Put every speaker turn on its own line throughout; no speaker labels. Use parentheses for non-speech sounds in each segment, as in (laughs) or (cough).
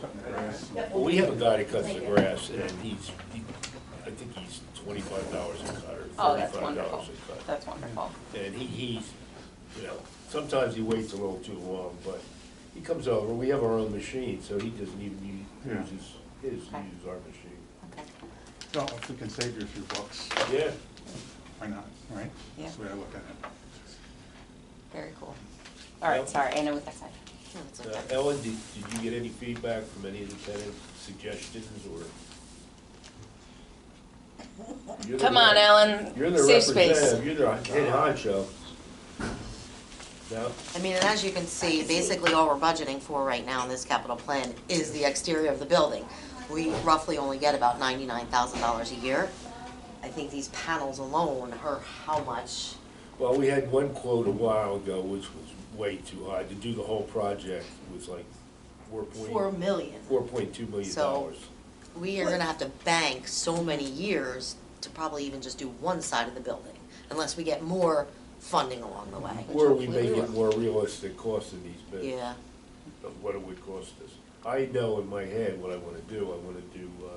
cutting the grass.
Well, we have a guy that cuts the grass, and he's, he- I think he's twenty-five dollars a cut, or
Oh, that's
thirty-five
wonderful.
dollars a cut.
That's wonderful.
And he, he's, you know, sometimes he waits a little too long, but he comes over, we have our own machine, so he doesn't even
Yeah.
use his, his, uses
Okay.
our machine.
Okay.
Well, if we can save you a few bucks,
Yeah.
why not, right?
Yeah.
That's the way I look at it.
Very cool. All right,
Yep.
sorry, I know what that's like. No, it's
Now,
okay.
uh, Ellen, did, did you get any feedback from any of the tenants, suggestions, or? You're the
Come on,
rep.
Ellen,
You're the
safe space.
representative, you're the head honcho. No?
I mean, and as you can see, basically all we're budgeting for right now in this capital plan is the exterior of the building. We roughly only get about ninety-nine thousand dollars a year. I think these panels alone are how much?
Well, we had one quote a while ago, which was way too high, to do the whole project was like four
Four
point,
million.
four point two million
So-
dollars.
We are gonna have to bank so many years to probably even just do one side of the building, unless we get more funding along the way.
Or we
Hopefully
make it
will.
more realistic cost in these bids.
Yeah,
of what it would cost us. I know in my head what I wanna do, I wanna do, uh,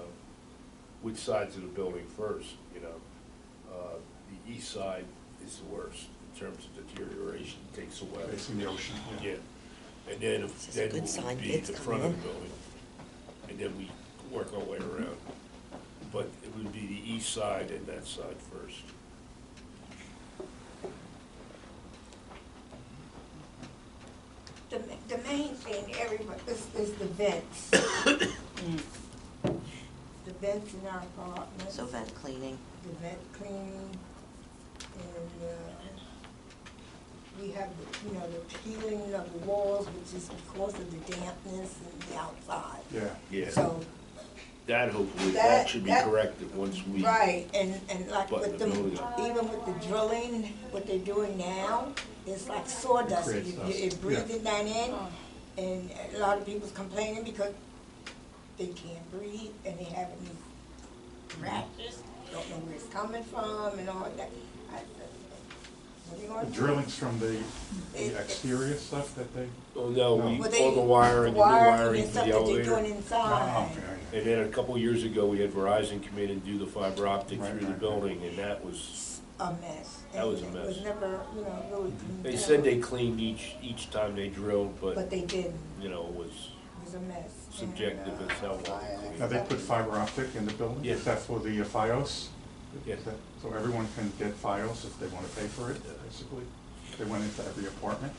which sides of the building first, you know? Uh, The east side is the worst in terms of deterioration, takes away.
Facing the ocean, yeah.
Yeah, and then, if-
This is a
then
good
it
sign,
would be
kids
the
come
front of the
in.
building, and then we work our way around. But it would be the east side and that side first.
The, the main thing, everybody, is, is the vents. The vents in our apartments,
so
the
vent cleaning.
vent cleaning, and, uh, we have, the you know, the peeling of the walls, which is because of the dampness and the outside.
Yeah,
So,
That hopefully, that
That-
should be
that-
corrected once we.
right, and, and like
Button
with
the
them,
building up.
even with the drilling, what they're doing now, it's like sawdust.
creates
You- you-
dust.
It breathes that in, and a lot of people's complaining because they can't breathe and they have these rashes, don't know where it's coming from and all that. I- I- What are you
the
gonna do?
drillings from the,
It-
the exterior stuff that they,
Oh, no, we,
Well,
all
they-
the wiring, the new
wiring
wiring
and
for
stuff
the
that they're
elevator.
doing
oh,
inside.
okay,
And then a couple years ago, we had Verizon come in and do the fiber optic
Right,
through the
right, right.
building, and that was,
A mess.
That was a
And It was
mess.
never, you know, really. cleaned
they
down.
said they cleaned each, each time they drilled,
But
but,
they didn't.
you know, it was,
It was a mess.
Subjective
And,
as hell.
uh, I-
now they put fiber optic in the building?
Yeah.
Is that for the uh, FiOS?
Yeah.
Is that- So everyone can get FiOS if they wanna pay for it,
Yeah.
basically? They went into every apartment?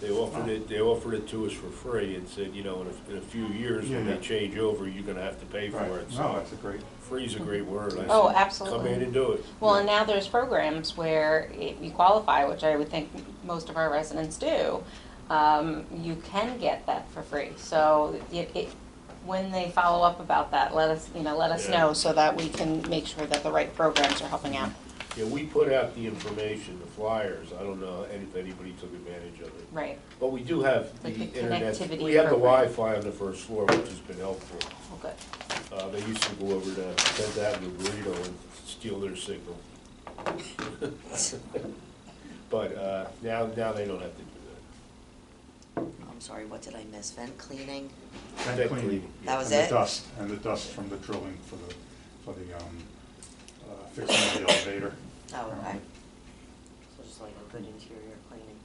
they offered it, they offered it to us for free and said, you know, in a, in a few years, when
Yeah,
they
yeah.
change over, you're gonna have to pay for
Right,
it.
no,
So
that's a great,
Free's a great word. I
Oh,
said, Come
absolutely.
in and do it.
Well, and now there's programs where if you qualify, which I would think most of our residents do, um, you can get that for free. So it, it, when they follow up about that, let us, you know, let us
Yeah.
know so that we can make sure that the right programs are helping out.
Yeah, we put out the information, the flyers, I don't know if anybody took advantage of it.
Right,
But we do have the
Like the
internet,
connectivity
we have the
program.
Wi-Fi on the first floor, which has been helpful.
well, good.
Uh, they used to go over to Tenth Avenue Burrito and steal their signal. (laughs) But, uh, now, now they don't have to do
I'm sorry, what did I miss? Vent cleaning?
that.
vent cleaning.
That was
And
it?
the dust, and the dust from the drilling for the, for the, um, uh, fixing of the elevator.
Oh, okay.
Um,
So just like a good interior cleaning.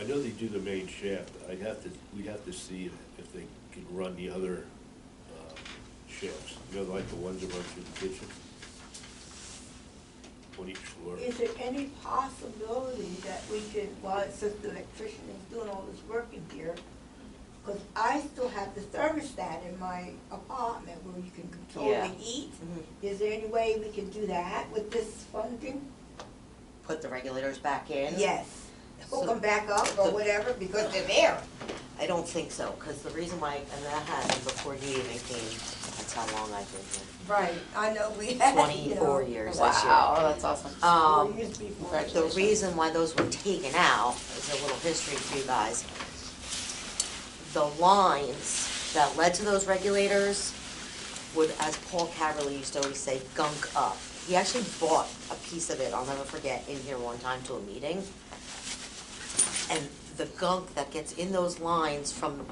I know they do the main shaft, I'd have to, we'd have to see if they could run the other, uh, shafts, you know, like the ones that run through the kitchen? On each floor.
Is there any possibility that we could, while it's just the electrician is doing all this work in here, because I still have the thermostat in my apartment where you can control
Yeah.
the heat.
Mm-hmm.
Is there any way we can do that with this funding?
Put the regulators back in?
Yes. Hook
So-
them back up or whatever, because they're there.
I don't think so, because the reason why, and that happened before you even came, that's how long I've been here.
Right, I know we had, you
24
know.
years this year.
Wow, that's awesome.
Four
Um,
years before.
the
Congratulations.
reason why those were taken out is a little history for you guys. The lines that led to those regulators would, as Paul Caverly used to always say, gunk up. He actually bought a piece of it, I'll never forget, in here one time to a meeting. And the gunk that gets in those lines from